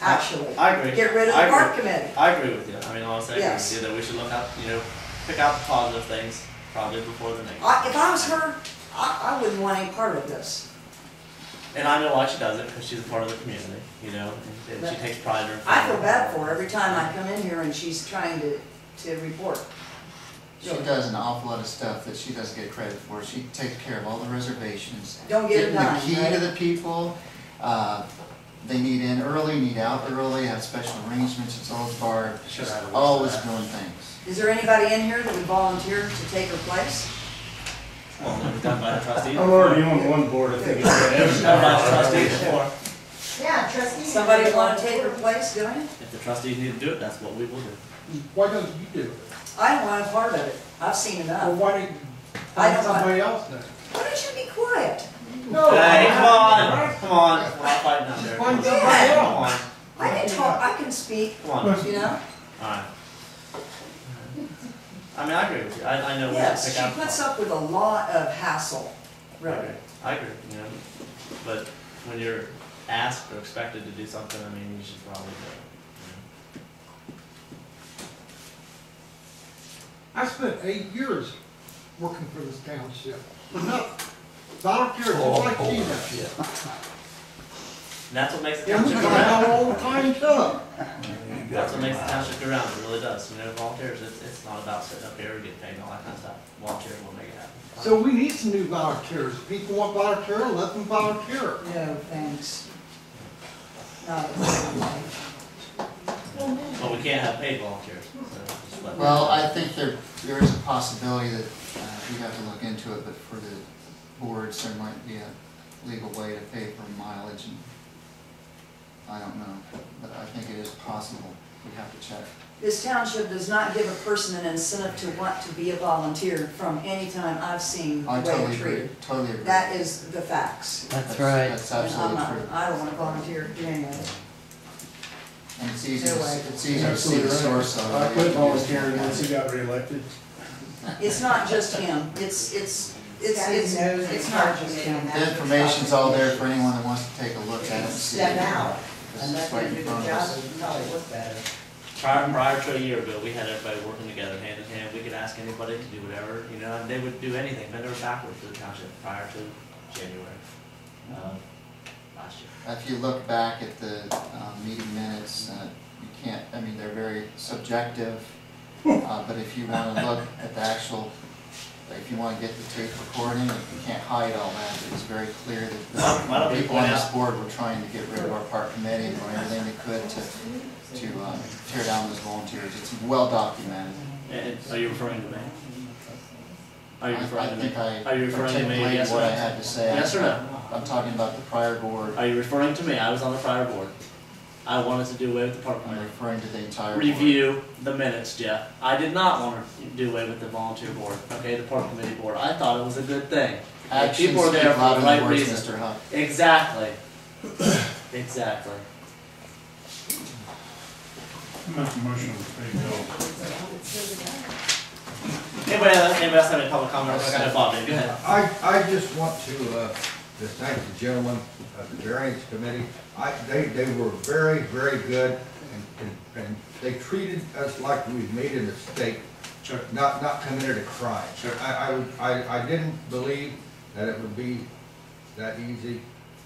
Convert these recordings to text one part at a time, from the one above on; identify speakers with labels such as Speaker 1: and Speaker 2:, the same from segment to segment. Speaker 1: actually.
Speaker 2: I agree.
Speaker 1: Get rid of
Speaker 2: I
Speaker 1: the
Speaker 2: agree.
Speaker 1: park committee.
Speaker 2: I agree with you. I mean, honestly, I agree
Speaker 1: Yes.
Speaker 2: with you that we should look up, you know, pick out the positive things probably before the next.
Speaker 1: I, if I was her, I, I wouldn't want any part of this.
Speaker 2: And I know why she does it because she's a part of the community, you know, and, and she takes pride in her.
Speaker 1: I feel bad for her every time I come in here and she's trying to, to report.
Speaker 3: She does an awful lot of stuff that she doesn't get credit for. She takes care of all the reservations.
Speaker 1: Don't get a dime,
Speaker 3: Getting the key
Speaker 1: right?
Speaker 3: to the people, uh, they need in early, need out early, have special arrangements, it's always barred.
Speaker 2: Should I have watched
Speaker 3: Always
Speaker 2: that?
Speaker 3: doing things.
Speaker 1: Is there anybody in here that would volunteer to take her place?
Speaker 2: Well, it was done by the trustees.
Speaker 4: I'm already on one board, I think.
Speaker 2: Done by the trustees before.
Speaker 5: Yeah, trustees.
Speaker 1: Somebody want to take her place doing it?
Speaker 2: If the trustees need to do it, that's what we will do.
Speaker 6: Why don't you do it?
Speaker 1: I don't want a part of it. I've seen
Speaker 6: Or
Speaker 1: enough.
Speaker 6: why don't you find
Speaker 1: I don't want,
Speaker 6: somebody else then?
Speaker 1: why don't you be quiet? Oh,
Speaker 6: No.
Speaker 2: Hey, come on,
Speaker 6: I-
Speaker 2: come on. We're not fighting out there.
Speaker 6: Find
Speaker 2: Come
Speaker 6: somebody else.
Speaker 2: on,
Speaker 1: I can talk, I can speak,
Speaker 2: come on.
Speaker 1: you know?
Speaker 2: Alright. I mean, I agree with you, I, I know we should
Speaker 1: Yes,
Speaker 2: pick out.
Speaker 1: she puts up with a lot of hassle,
Speaker 2: I agree,
Speaker 1: really.
Speaker 2: I agree, you know, but when you're asked or expected to do something, I mean, you should probably do it.
Speaker 6: I spent eight years working for this township, for nothing. Volunteers, just like she does.
Speaker 2: And that's what makes the
Speaker 6: And we
Speaker 2: township go
Speaker 6: got out
Speaker 2: round,
Speaker 6: all the time, too.
Speaker 2: that's what makes the township go round, it really does, you know, volunteers, it's, it's not about sitting up here and getting paid and all that kind of stuff, volunteers will make it happen.
Speaker 6: So we need some new volunteers. If People want volunteer, let them volunteer.
Speaker 1: No, thanks. Not at all.
Speaker 2: But we can't have paid volunteers, so just let.
Speaker 3: Well, I think there, there is a possibility that, uh, we have to look into it, but for the boards, there might be a legal way to pay for mileage and I don't know, but I think it is possible. We have to check.
Speaker 1: This township does not give a person an incentive to want to be a volunteer from any time I've seen the
Speaker 3: I
Speaker 1: way
Speaker 3: totally
Speaker 1: it's
Speaker 3: agree,
Speaker 1: treated.
Speaker 3: totally agree.
Speaker 1: That is the facts.
Speaker 7: That's right.
Speaker 3: That's
Speaker 1: And I'm
Speaker 3: absolutely
Speaker 5: Uh-huh.
Speaker 1: not-
Speaker 3: true.
Speaker 1: I don't want to volunteer to do any of it.
Speaker 3: And it's easy, to
Speaker 1: Anyway.
Speaker 3: it's easy to see the source of it.
Speaker 4: I quit volunteering once he got reelected.
Speaker 1: It's not just him, it's, it's, it's, it's, it's not just him.
Speaker 3: The information's all there for anyone that wants to take a look at it. and see
Speaker 5: Step
Speaker 3: it.
Speaker 5: out,
Speaker 3: This
Speaker 5: and
Speaker 3: is
Speaker 5: let
Speaker 3: right
Speaker 5: them
Speaker 3: in
Speaker 5: do the
Speaker 3: front of
Speaker 5: job,
Speaker 3: us.
Speaker 5: and probably look better.
Speaker 2: Prior, prior to a year ago, we had everybody working together, hand in hand, we could ask anybody to do whatever, you know, and they would do anything, bend over backwards for the township prior to January, uh, last year.
Speaker 3: If you look back at the um, meeting minutes, uh, you can't, I mean, they're very subjective. uh, But if you want to look at the actual, if you want to get the tape recording, you can't hide all that. It was very clear that
Speaker 2: Why don't
Speaker 3: the
Speaker 2: we
Speaker 3: people on
Speaker 2: point
Speaker 3: this
Speaker 2: out-
Speaker 3: board were trying to get rid of our park committee and doing everything they could to, to uh, tear down those volunteers. It's well documented.
Speaker 2: And, and are you referring to me? Are you
Speaker 3: I-
Speaker 2: referring to me?
Speaker 3: I think I
Speaker 2: Are you referring to me,
Speaker 3: articulated
Speaker 2: yes or
Speaker 3: what I
Speaker 2: no?
Speaker 3: had to say.
Speaker 2: Yes or no?
Speaker 3: I'm talking about the prior board,
Speaker 2: Are you referring to me? I was on the prior board. I wanted to do away with the park
Speaker 3: I'm
Speaker 2: committee.
Speaker 3: referring to the entire board.
Speaker 2: Review the minutes, Jeff. I did not want to do away with the volunteer board, okay, the park committee board. I thought it was a good thing. Like,
Speaker 3: Actions
Speaker 2: People are
Speaker 3: speak
Speaker 2: there for
Speaker 3: louder
Speaker 2: the
Speaker 3: than
Speaker 2: right
Speaker 3: words,
Speaker 2: reason.
Speaker 3: Mr. Huff.
Speaker 2: Exactly. Exactly.
Speaker 4: Make a motion to pay bill.
Speaker 2: Anybody else, anybody else have any public comment? I got a Bob, go ahead.
Speaker 8: I, I just want to, uh, to thank the gentlemen of the variance committee. I, they, they were very, very good and, and, and they treated us like we made a mistake,
Speaker 2: Sure.
Speaker 8: not, not committed a crime.
Speaker 2: Sure.
Speaker 8: I, I, I, I didn't believe that it would be that easy,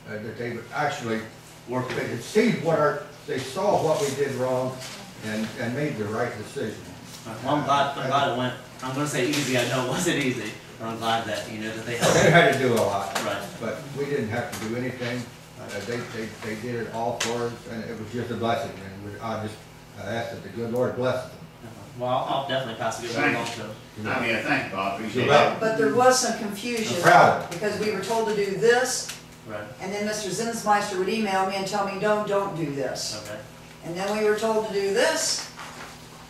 Speaker 8: uh, that they would actually,
Speaker 2: Work
Speaker 8: they could see what our, they saw what we did wrong and, and made the right decision.
Speaker 2: Well, I'm glad, I'm glad it went, I'm gonna say easy, I know it wasn't easy, but I'm glad that, you know, that they
Speaker 8: They
Speaker 2: helped.
Speaker 8: had to do a lot.
Speaker 2: Right.
Speaker 8: But we didn't have to do anything. Uh, They, they, they did it all for us, and it was just a blessing. And we- I just uh, asked that the good Lord bless them.
Speaker 2: Well, I'll I'll definitely pass a good one along to them.
Speaker 9: I mean, I thank Bob, appreciate
Speaker 8: Well-
Speaker 9: it.
Speaker 1: But there was some confusion.
Speaker 8: I'm proud of
Speaker 1: Because we were told to do this,
Speaker 2: Right,
Speaker 1: and then Mr. Zinsmeister would email me and tell me, no, don't do this.
Speaker 2: okay.
Speaker 1: And then we were told to do this,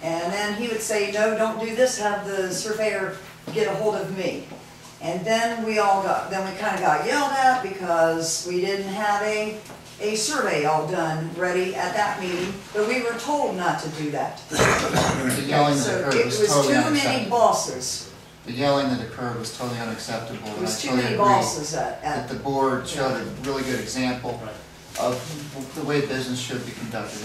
Speaker 1: and then he would say, no, don't do this, have the surveyor get a hold of me. And then we all got, then we kinda got yelled at because we didn't have a, a survey all done, ready at that meeting, but we were told not to do that.
Speaker 3: The yelling that
Speaker 1: So
Speaker 3: occurred
Speaker 1: it
Speaker 3: was
Speaker 1: was
Speaker 3: totally
Speaker 1: too many
Speaker 3: unacceptable.
Speaker 1: bosses,
Speaker 3: The yelling that occurred was totally unacceptable.
Speaker 1: it
Speaker 3: and I
Speaker 1: was too
Speaker 3: totally
Speaker 1: many
Speaker 3: agree
Speaker 1: bosses at,
Speaker 3: That
Speaker 1: at,
Speaker 3: the board showed a really good example
Speaker 2: Right.
Speaker 3: of the way business should be conducted